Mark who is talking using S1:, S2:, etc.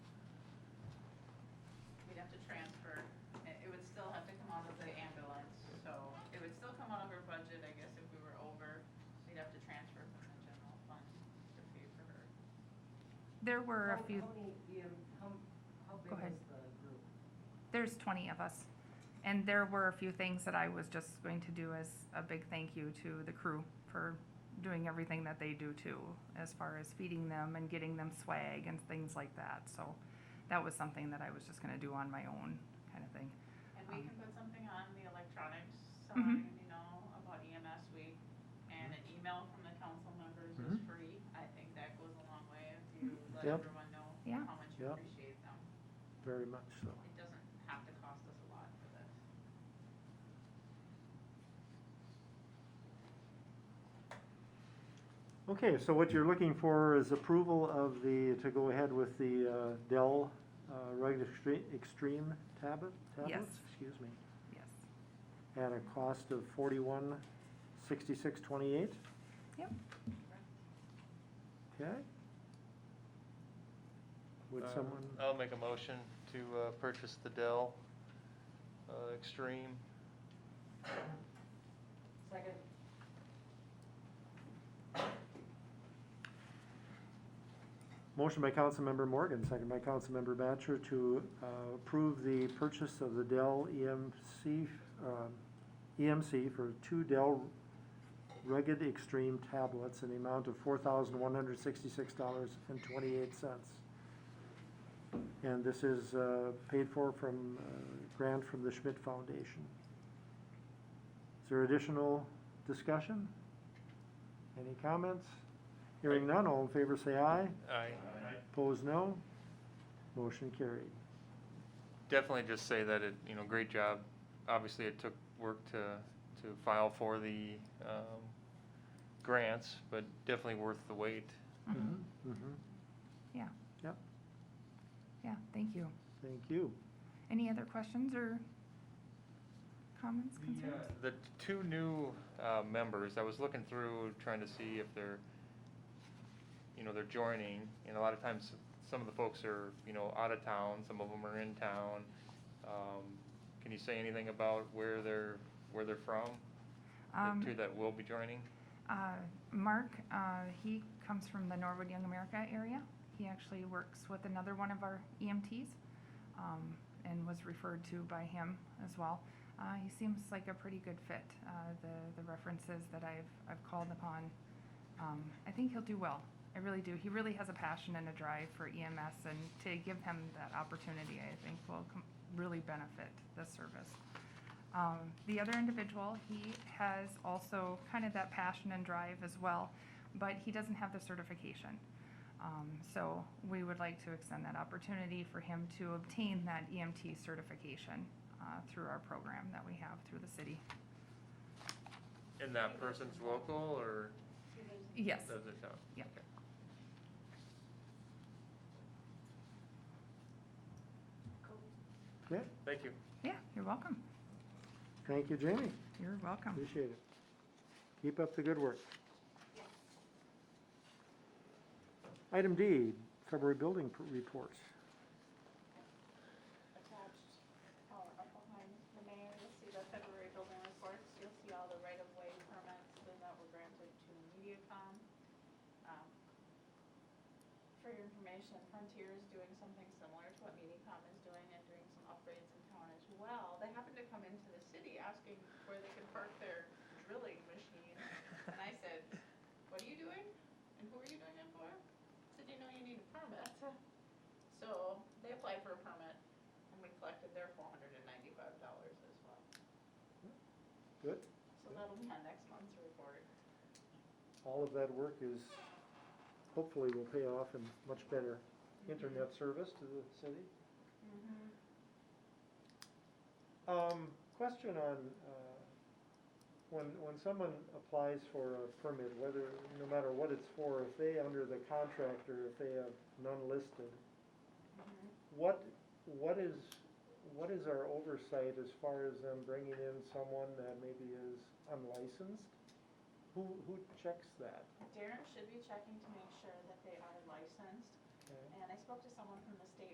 S1: to transfer. It it would still have to come out of the ambulance, so it would still come out of her budget, I guess, if we were over. We'd have to transfer from the general fund to pay for her.
S2: There were
S3: How-
S2: a few,
S3: How many, um, how, how
S2: Go
S3: big
S2: ahead.
S3: is the group?
S2: there's 20 of us. And there were a few things that I was just going to do as a big thank you to the crew for doing everything that they do too, as far as feeding them and getting them swag and things like that. So that was something that I was just going to do on my own kind of thing.
S1: And we
S2: Um,
S1: can put something on the electronics sign,
S2: Mhm.
S1: you know, about E EMS week. And an email from the council members is
S4: Mhm.
S1: free. I think that goes a long way if you let
S4: Yep.
S1: everyone know
S2: Yeah.
S1: how much you
S4: Yep.
S1: appreciate them.
S4: Very much so.
S1: It doesn't have to cost us a lot for this.
S4: Okay, so what you're looking for is approval of the, to go ahead with the uh, Dell uh, Rugged Extre- Extreme tablet, tablets, excuse me,
S2: Yes.
S4: at a cost of forty-one sixty-six twenty-eight,
S2: Yep.
S4: okay? Would
S5: Uh,
S4: someone,
S5: I'll make a motion to uh, purchase the Dell uh, Extreme.
S3: Second,
S4: motion by Councilmember Morgan, second by Councilmember Batchor to uh, approve the purchase of the Dell E EMC, um, EMC for two Dell Rugged Extreme tablets in the amount of four thousand one hundred sixty-six dollars and twenty-eight cents. And this is uh, paid for from uh, grant from the Schmidt Foundation. Is there additional discussion? Any comments? Hearing none, all in favor say aye.
S5: I
S4: Opposed, no. Motion carried.
S5: definitely just say that it, you know, great job. Obviously, it took work to, to file for the um, grants, but definitely worth the wait.
S2: Mhm.
S4: Mhm.
S2: Yeah,
S4: Yep,
S2: yeah, thank you.
S4: thank you.
S2: Any other questions or comments, concerns?
S5: The two new uh, members, I was looking through, trying to see if they're, you know, they're joining, and a lot of times, some of the folks are, you know, out of town, some of them are in town. Um, Can you say anything about where they're, where they're from?
S2: Um,
S5: The two that will be joining?
S2: Uh, Mark, uh, he comes from the Norwood Young America area. He actually works with another one of our EMTs um, and was referred to by him as well. Uh, he seems like a pretty good fit. Uh, the, the references that I've, I've called upon, um, I think he'll do well. I really do. He really has a passion and a drive for EMS, and to give him that opportunity, I think will com- really benefit the service. Um, the other individual, he has also kind of that passion and drive as well, but he doesn't have the certification. Um, so we would like to extend that opportunity for him to obtain that EMT certification uh, through our program that we have through the city.
S5: And that person's local, or
S2: Yes.
S5: does it sound?
S2: Yeah.
S5: okay.
S3: cool.
S4: Okay,
S5: Thank you.
S2: Yeah, you're welcome.
S4: thank you, Jamie.
S2: You're welcome.
S4: Appreciate it. Keep up the good work. Item D, February building pr- report.
S1: attached or up behind the mayor, you'll see the February building reports, you'll see all the right-of-way permits then that were granted to MediaCom. Um, For your information, Frontier is doing something similar to what MediaCom is doing and doing some upgrades in town as well. They happened to come into the city asking where they could park their drilling machine, and I said, what are you doing? And who are you doing it for? Said, you know, you need a permit. So they applied for a permit and we collected their four hundred and ninety-five dollars as well.
S4: Good.
S1: So that'll be on next month's report.
S4: All of that work is, hopefully will pay off in much better internet service to the city.
S1: Mm-hmm,
S4: Um, question on, uh, when, when someone applies for a permit, whether, no matter what it's for, if they, under the contractor, if they have none listed,
S1: mm-hmm.
S4: what, what is, what is our oversight as far as them bringing in someone that maybe is unlicensed? Who, who checks that?
S1: Darren should be checking to make sure that they are licensed,
S4: Okay.
S1: and I spoke to someone from the state